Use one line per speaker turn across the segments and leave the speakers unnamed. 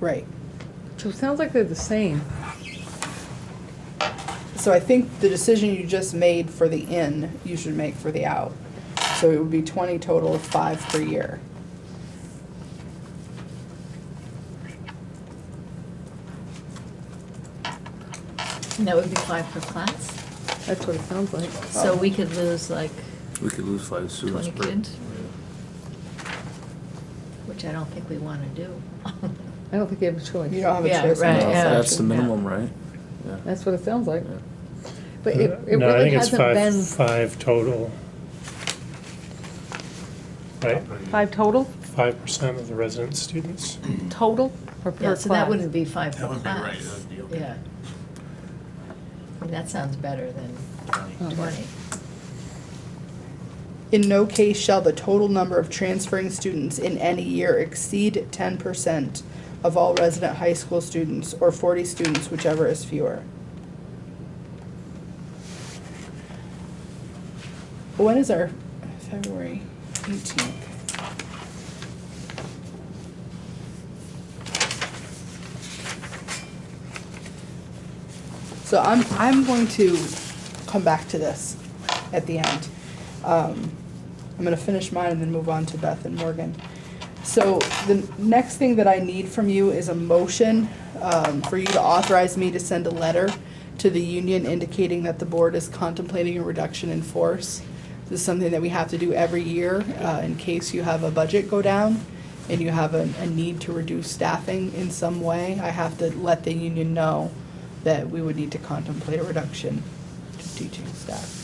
Right.
So it sounds like they're the same.
So I think the decision you just made for the in, you should make for the out. So it would be twenty total of five per year.
And that would be five per class,
That's what it sounds like.
so we could lose like
We could lose five students.
twenty
per-
kids. Which I don't think we wanna do.
I don't think you have a choice.
You don't have a
Yeah,
choice. on
right,
that
yeah.
That's the
section.
minimum, right? Yeah.
That's what it sounds like.
Yeah.
But it, it
No, I
really
think it's
hasn't
five-
been
Five total. Right,
five total,
five percent of the resident students.
total or per
Yeah,
class?
so that wouldn't be five per
That would be right,
class.
that'd be okay.
Yeah. I mean, That sounds better than twenty.
In no case shall the total number of transferring students in any year exceed ten percent of all resident high school students or forty students, whichever is fewer. When is our February eighteenth? So I'm, I'm going to come back to this at the end. Um, I'm gonna finish mine and then move on to Beth and Morgan. So the next thing that I need from you is a motion, um, for you to authorize me to send a letter to the union indicating that the board is contemplating a reduction in force. This is something that we have to do every year, uh, in case you have a budget go down and you have a, a need to reduce staffing in some way. I have to let the union know that we would need to contemplate a reduction to teaching staff.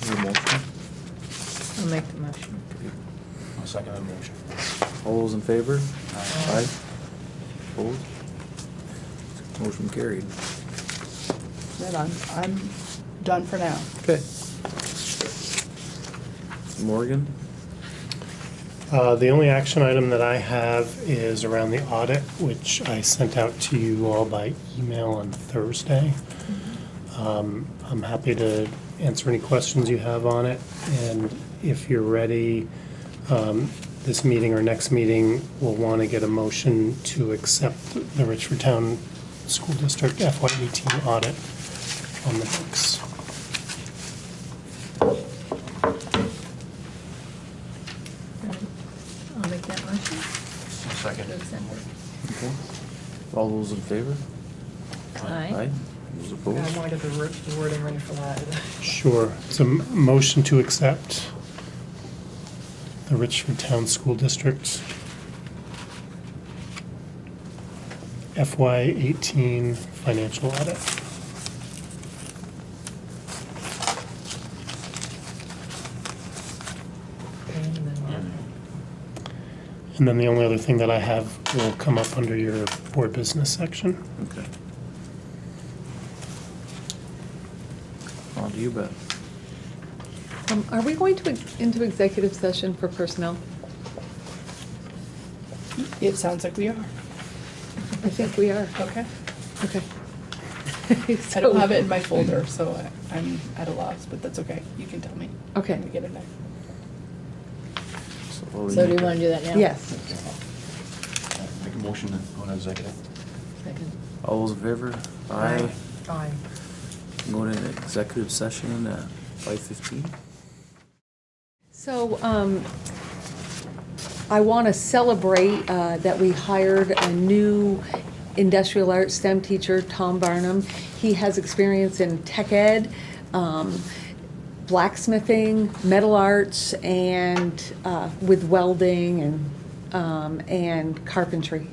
Is there a motion?
I'll make the motion.
I'll second that motion.
All those in favor?
Aye.
Opposed? Motion carried.
Then I'm, I'm done for now.
Okay. Morgan?
Uh, The only action item that I have is around the audit, which I sent out to you all by email on Thursday. Um, I'm happy to answer any questions you have on it, and if you're ready, um, this meeting or next meeting, we'll want to get a motion to accept the Richford Town School District FY18 audit on the books.
I'll make that motion.
I'll second it.
Consent.
Okay. All those in favor?
Aye.
Those
I
opposed?
wanted to have the wor- the wording ready for that.
Sure. It's a m- motion to accept the Richford Town School District FY eighteen financial audit.
And then we'll-
And then the only other thing that I have will come up under your board business section.
Okay. On to you, Beth.
Um, Are we going to, ex- into executive session for personnel?
It sounds like we are.
I think we are.
Okay.
Okay.
I don't have it in my folder, so I- I'm at a loss, but that's okay. You can tell me.
Okay.
When we get it back.
what we
So do
need
you
to-
wanna do that now?
Yes.
Make a motion to go into executive.
Second.
All those in favor? Aye.
Aye.
Going into executive session at five fifteen?
So um, I want to celebrate uh, that we hired a new industrial arts STEM teacher, Tom Barnum. He has experience in tech ed, um, blacksmithing, metal arts, and uh, with welding and, um, and carpentry.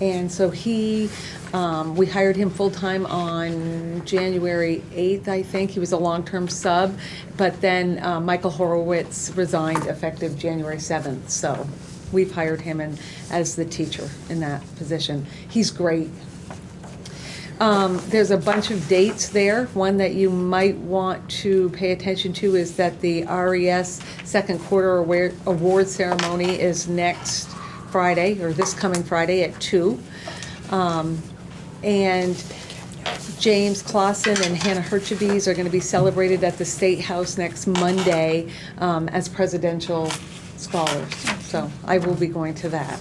And so he, um, we hired him full-time on January 8th, I think. He was a long-term sub, but then uh, Michael Horowitz resigned effective January 7th. So we've hired him in, as the teacher in that position. He's great. Um, There's a bunch of dates there. One that you might want to pay attention to is that the RES Second Quarter aware- Award Ceremony is next Friday, or this coming Friday at two. Um And James Clausen and Hannah Herchabees are going to be celebrated at the State House next Monday um, as presidential scholars. So I will be going to that.